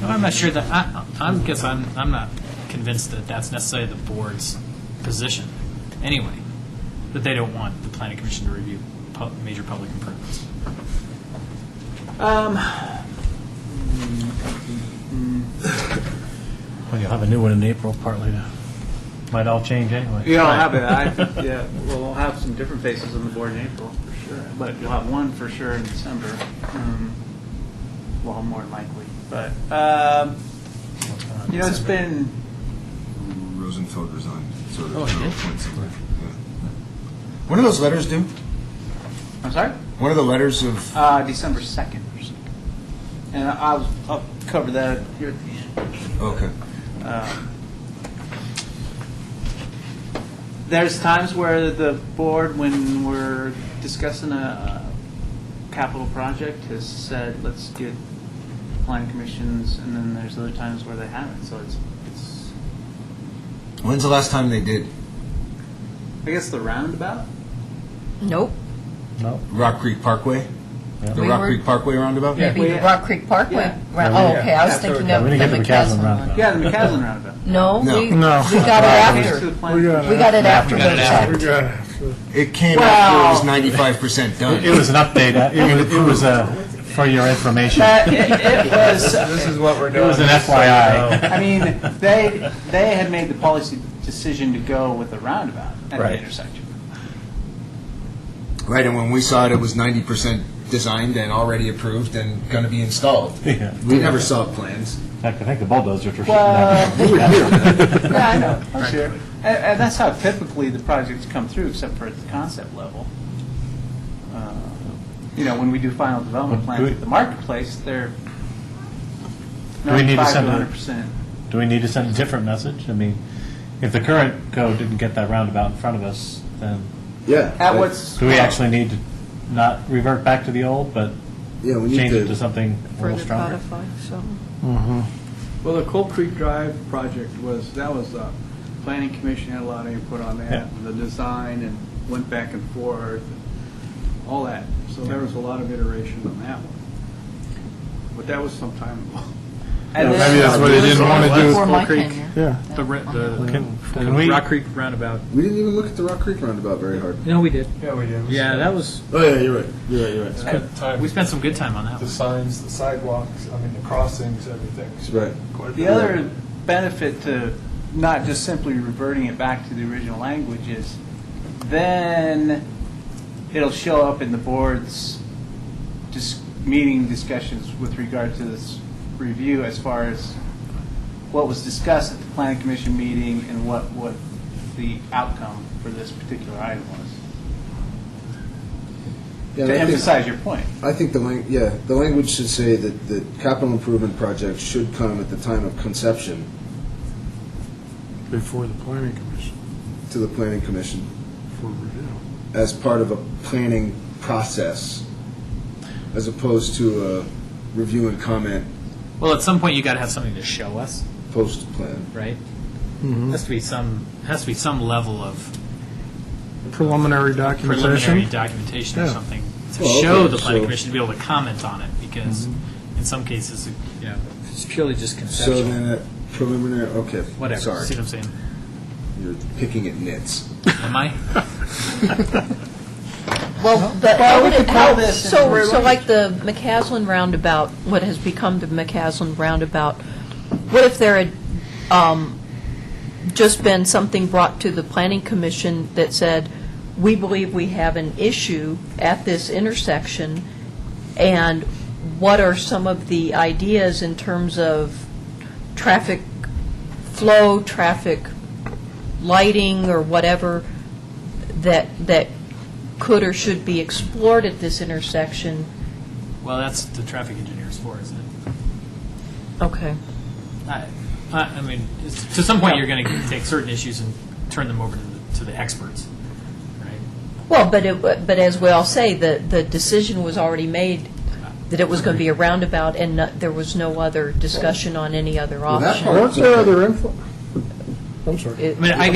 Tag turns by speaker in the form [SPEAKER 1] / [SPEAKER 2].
[SPEAKER 1] not sure that, I, I'm, guess I'm, I'm not convinced that that's necessarily the board's position, anyway, that they don't want the planning commission to review pu- major public improvements.
[SPEAKER 2] Well, you'll have a new one in April partly to, might all change anyway.
[SPEAKER 3] Yeah, I'll have it. I, yeah, well, we'll have some different faces on the board in April for sure, but you'll have one for sure in December. Um, well, more than likely, but um, you know, it's been
[SPEAKER 4] Rosenfeld resigned, so
[SPEAKER 1] Oh,
[SPEAKER 4] there's
[SPEAKER 1] he
[SPEAKER 4] no
[SPEAKER 1] did?
[SPEAKER 4] point somewhere. Yeah. When are those letters due?
[SPEAKER 3] I'm sorry,
[SPEAKER 4] When are the letters of?
[SPEAKER 3] uh, December second, or something. and I'll I'll cover that here at the end.
[SPEAKER 4] Okay.
[SPEAKER 3] Um, There's times where the board, when we're discussing a uh, capital project, has said, let's get planning commissions, and then there's other times where they haven't, so it's, it's,
[SPEAKER 4] When's the last time they did?
[SPEAKER 3] I guess the roundabout?
[SPEAKER 5] Nope.
[SPEAKER 2] No?
[SPEAKER 4] Rock Creek Parkway?
[SPEAKER 2] Yeah.
[SPEAKER 4] The
[SPEAKER 5] We
[SPEAKER 4] Rock
[SPEAKER 5] were-
[SPEAKER 4] Creek Parkway roundabout?
[SPEAKER 5] Maybe
[SPEAKER 3] We-
[SPEAKER 5] the Rock Creek Parkway.
[SPEAKER 3] Yeah.
[SPEAKER 5] Right.
[SPEAKER 2] Yeah, we-
[SPEAKER 5] Oh, okay, I was thinking
[SPEAKER 2] Yeah,
[SPEAKER 5] of
[SPEAKER 2] we
[SPEAKER 5] the
[SPEAKER 2] didn't get to McCaslin
[SPEAKER 5] McCaslin
[SPEAKER 2] roundabout.
[SPEAKER 5] one.
[SPEAKER 3] Yeah, the McCaslin roundabout.
[SPEAKER 5] No, we, we
[SPEAKER 2] No.
[SPEAKER 5] got it
[SPEAKER 3] Goes to
[SPEAKER 5] after.
[SPEAKER 3] the planning commission.
[SPEAKER 5] We got it after.
[SPEAKER 1] got it after.
[SPEAKER 5] the fact.
[SPEAKER 4] It came after
[SPEAKER 5] Wow.
[SPEAKER 4] it was 95%
[SPEAKER 2] It
[SPEAKER 4] done.
[SPEAKER 2] was an update, uh, it was, it was, uh, for your information.
[SPEAKER 3] But it, it was, uh,
[SPEAKER 6] This is what we're
[SPEAKER 2] It
[SPEAKER 6] doing.
[SPEAKER 2] was an FYI.
[SPEAKER 3] I mean, they, they had made the policy decision to go with the roundabout at the
[SPEAKER 2] Right.
[SPEAKER 3] intersection.
[SPEAKER 4] Right, and when we saw it, it was 90% designed and already approved and going to be installed.
[SPEAKER 2] Yeah.
[SPEAKER 4] We never saw plans.
[SPEAKER 2] In fact, I think the bulldozers were sitting
[SPEAKER 3] Well, uh,
[SPEAKER 2] there.
[SPEAKER 3] Yeah, I know, I'm sure. And, and that's how typically the projects come through, except for at the concept level. Uh, You know, when we do final development
[SPEAKER 2] Well,
[SPEAKER 3] plans
[SPEAKER 2] do
[SPEAKER 3] at the marketplace, they're
[SPEAKER 2] Do we need to
[SPEAKER 3] ninety-five to
[SPEAKER 2] send a-
[SPEAKER 3] hundred percent.
[SPEAKER 2] Do we need to send a different message? I mean, if the current code didn't get that roundabout in front of us, then
[SPEAKER 4] Yeah.
[SPEAKER 3] At what's,
[SPEAKER 2] do we actually need to not revert back to the old, but
[SPEAKER 4] Yeah, we
[SPEAKER 2] change it to something a little
[SPEAKER 5] Further
[SPEAKER 2] stronger?
[SPEAKER 5] codify, so.
[SPEAKER 7] Well, the Coal Creek Drive project was, that was, the planning commission had a lot of input on
[SPEAKER 2] Yeah.
[SPEAKER 7] that, the design, and went back and forth, and all that. So there was a lot of iteration on that one. But that was some time ago.
[SPEAKER 3] and
[SPEAKER 8] Yeah, maybe that's
[SPEAKER 3] then,
[SPEAKER 8] what they didn't want to do.
[SPEAKER 5] Before my
[SPEAKER 1] Creek.
[SPEAKER 5] tenure.
[SPEAKER 8] Yeah.
[SPEAKER 1] The, re- the,
[SPEAKER 2] Can-
[SPEAKER 1] the
[SPEAKER 2] can we-
[SPEAKER 1] Rock Creek roundabout.
[SPEAKER 4] We didn't even look at the Rock Creek roundabout very hard.
[SPEAKER 1] No, we did.
[SPEAKER 6] Yeah, we did.
[SPEAKER 1] Yeah, that was,
[SPEAKER 4] Oh, yeah, you're right. You're right, you're right.
[SPEAKER 6] At the time,
[SPEAKER 1] we spent some good time on that
[SPEAKER 6] The
[SPEAKER 1] one.
[SPEAKER 6] signs, the sidewalks, I mean, the crossings, everything.
[SPEAKER 4] Right.
[SPEAKER 6] Quite a
[SPEAKER 3] the
[SPEAKER 6] bit.
[SPEAKER 3] other benefit to not just simply reverting it back to the original language is then it'll show up in the board's dis- meeting discussions with regard to this review as far as what was discussed at the planning commission meeting and what, what the outcome for this particular item was.
[SPEAKER 9] Yeah,
[SPEAKER 3] To
[SPEAKER 9] I think-
[SPEAKER 3] emphasize your point.
[SPEAKER 9] I think the lang, yeah, the language should say that the capital improvement project should come at the time of conception
[SPEAKER 8] Before the planning commission
[SPEAKER 9] to the planning commission
[SPEAKER 8] for review.
[SPEAKER 9] as part of a planning process, as opposed to a review and comment
[SPEAKER 1] Well, at some point, you got to have something to show us,
[SPEAKER 9] post-plan.
[SPEAKER 1] right?
[SPEAKER 9] Mm-hmm.
[SPEAKER 1] Has to be some, has to be some level of
[SPEAKER 8] Preliminary
[SPEAKER 1] preliminary
[SPEAKER 8] documentation.
[SPEAKER 1] documentation or
[SPEAKER 8] Yeah.
[SPEAKER 1] something to
[SPEAKER 9] Well,
[SPEAKER 1] show
[SPEAKER 9] okay,
[SPEAKER 1] the planning
[SPEAKER 9] so- Mm-hmm.
[SPEAKER 1] commission to be able to comment on it, because in some cases, you know, it's purely just
[SPEAKER 9] So
[SPEAKER 1] conceptual,
[SPEAKER 9] then, a preliminary, okay,
[SPEAKER 1] whatever,
[SPEAKER 9] sorry,
[SPEAKER 1] see what I'm saying?
[SPEAKER 9] you're picking at nits.
[SPEAKER 1] Am I?
[SPEAKER 5] Well,
[SPEAKER 3] Well,
[SPEAKER 5] but how
[SPEAKER 3] we
[SPEAKER 5] would
[SPEAKER 3] could
[SPEAKER 5] it
[SPEAKER 3] call
[SPEAKER 5] help?
[SPEAKER 3] this
[SPEAKER 5] So,
[SPEAKER 3] and-
[SPEAKER 5] so like the McCaslin roundabout, what has become the McCaslin roundabout, what if there had um, just been something brought to the planning commission that said, we believe we have an issue at this intersection, and what are some of the ideas in terms of traffic flow, traffic lighting, or whatever, that, that could or should be explored at this intersection.
[SPEAKER 1] Well, that's the traffic engineer's for, isn't it?
[SPEAKER 5] Okay.
[SPEAKER 1] I, I I mean, it's- to some point, you're going to take certain issues and turn them over to the, to the experts, right?
[SPEAKER 5] Well, but it, but as we all say, the, the decision was already made that it was going to be a roundabout and not- there was no other discussion on any other
[SPEAKER 9] Well, that
[SPEAKER 5] option.
[SPEAKER 9] part-
[SPEAKER 8] What's their other info? I'm sorry.
[SPEAKER 5] It-
[SPEAKER 1] I mean, I